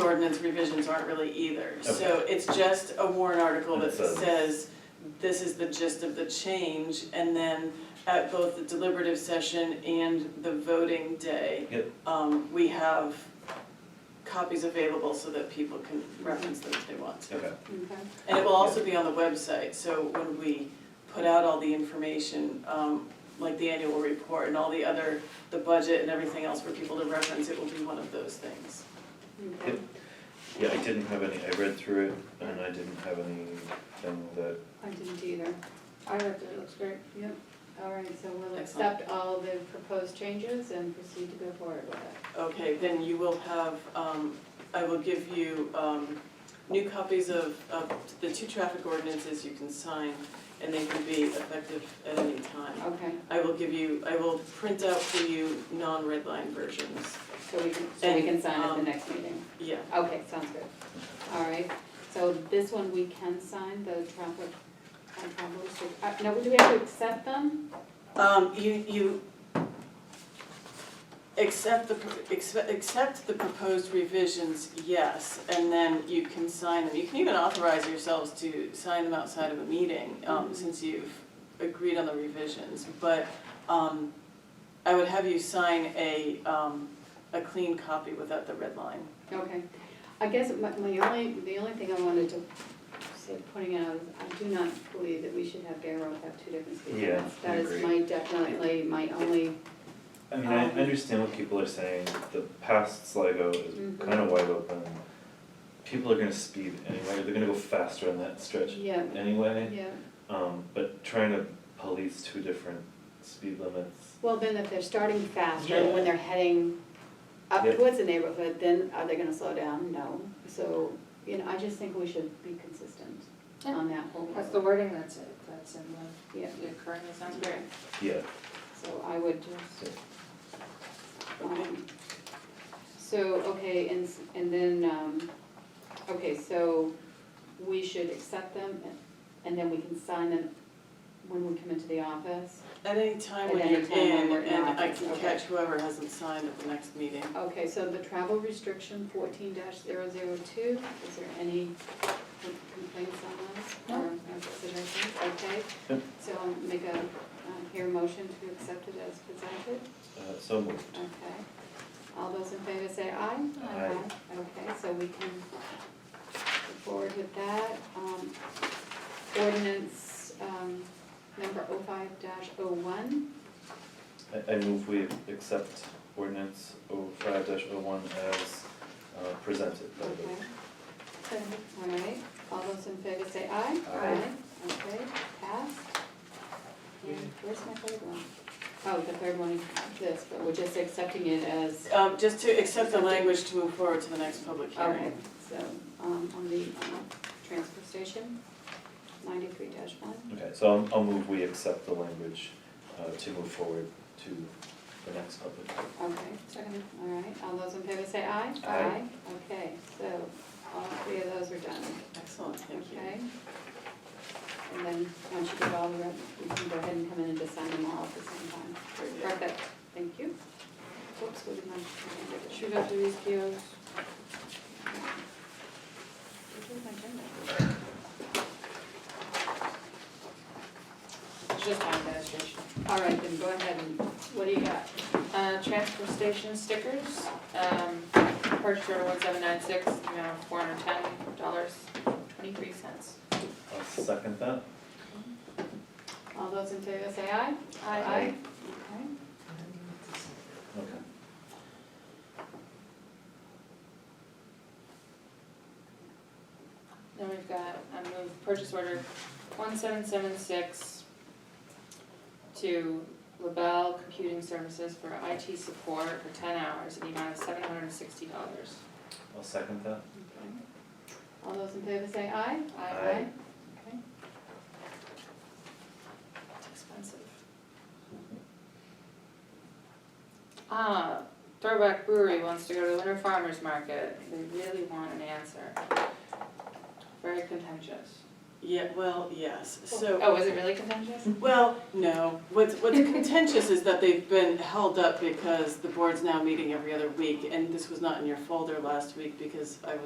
ordinance revisions aren't really either. So it's just a warrant article that It says- says, this is the gist of the change. And then at both the deliberative session and the voting day, Yep. um, we have copies available so that people can reference them if they want to. Okay, And it will also be on the website, so when we put out all the information, um, like the annual report and all the other, the budget and everything else for people to reference, it will be one of those things. Yep. yeah, I didn't have any, I read through it and I didn't have anything that, I didn't either. I read through, it looks great. Yep. All right, so we'll Excellent. accept all the proposed changes and proceed to go forward with it. Okay, then you will have, um, I will give you, um, new copies of, of the two traffic ordinances you can sign, and they can be effective at any time. Okay, I will give you, I will print out for you non-red line versions, so we can, so we can sign at the And, next meeting. yeah. Okay, sounds good. All right, so this one we can sign, the traffic, uh, problems, uh, no, do we have to accept them? Um, you, you accept the, pro- accept, accept the proposed revisions, yes, and then you can sign them. You can even authorize yourselves to sign them outside of a meeting, um, Mhm. since you've agreed on the revisions. But, um, I would have you sign a, um, a clean copy without the red line. Okay, I guess my, my only, the only thing I wanted to say, pointing out, is I do not believe that we should have Bear Rock have two different speed Yeah, limits. I That is agree. my, definitely my only, I mean, I Um, understand what people are saying, the past Sligo is Mhm. kind of wide open. People are gonna speed anyway, they're gonna go faster on that stretch yeah, anyway, yeah. um, but trying to police two different speed limits, Well, then if they're starting faster, and when they're heading up Yeah. towards the neighborhood, then are they gonna slow down? No. So, you know, I just think we should be consistent on that whole. That's the wording that's, that's in Yeah, the, the current, it sounds great. yeah, so I would just, so, um, so, okay, and, s- and then, um, okay, so we should accept them and- and then we can sign them when we come into the office. At any time when At you're any time when in, we're and not, I can okay. catch whoever hasn't signed at the next meeting. Okay, so the travel restriction fourteen 2 is there any complaints on that? Or considerations, okay? Yep. So I'll make a, um, here motion to accept it as presented, uh, so moved. okay? All those in favor say aye? Aye. Okay, so we can go forward with that. Um, Ordinance um, number 5 oh one I, I move we accept ordinance oh five dash oh one as, uh, presented by Okay. the All right, all those in favor say aye. Aye. Okay, passed. And where's my third one? Oh, the third one is this, but we're just accepting it as, Um, just to accept the language to move forward to the next public okay, hearing. so, um, on the, uh transfer station, ninety-three dash one. Okay, so I'll, I'll move we accept the language, uh, to move forward to the next public. hearing. Okay, second, all right, all those in favor say aye. Aye. Okay, so all three of those are done. Excellent, thank you. Okay. And then, once you get all the, rest, you can go ahead and come in and just sign them all at the same time. Perfect, thank you. Whoops, what did my, should Shoot up to these POs. my agenda? It's just my administration. All right, then go ahead and, What do you got? Uh, transfer station stickers, um, purchase order one seven nine six, amount of four hundred ten dollars, twenty-three cents. I'll second that. all those in favor say aye? Aye. Okay. Okay. Then we've got, I move purchase order one seven seven six to LaBelle Computing Services for IT support for ten hours, in the amount of seven hundred and sixty dollars. I'll second that. Okay. All those in favor say aye? Aye. Okay. It's expensive. Ah, Throwback Brewery wants to go to the Winter Farmers Market, they really want an answer. Very contentious. Yeah, well, yes, so, Oh, was it really contentious? well, no, what's, what's contentious is that they've been held up because the board's now meeting every other week, and this was not in your folder last week because I was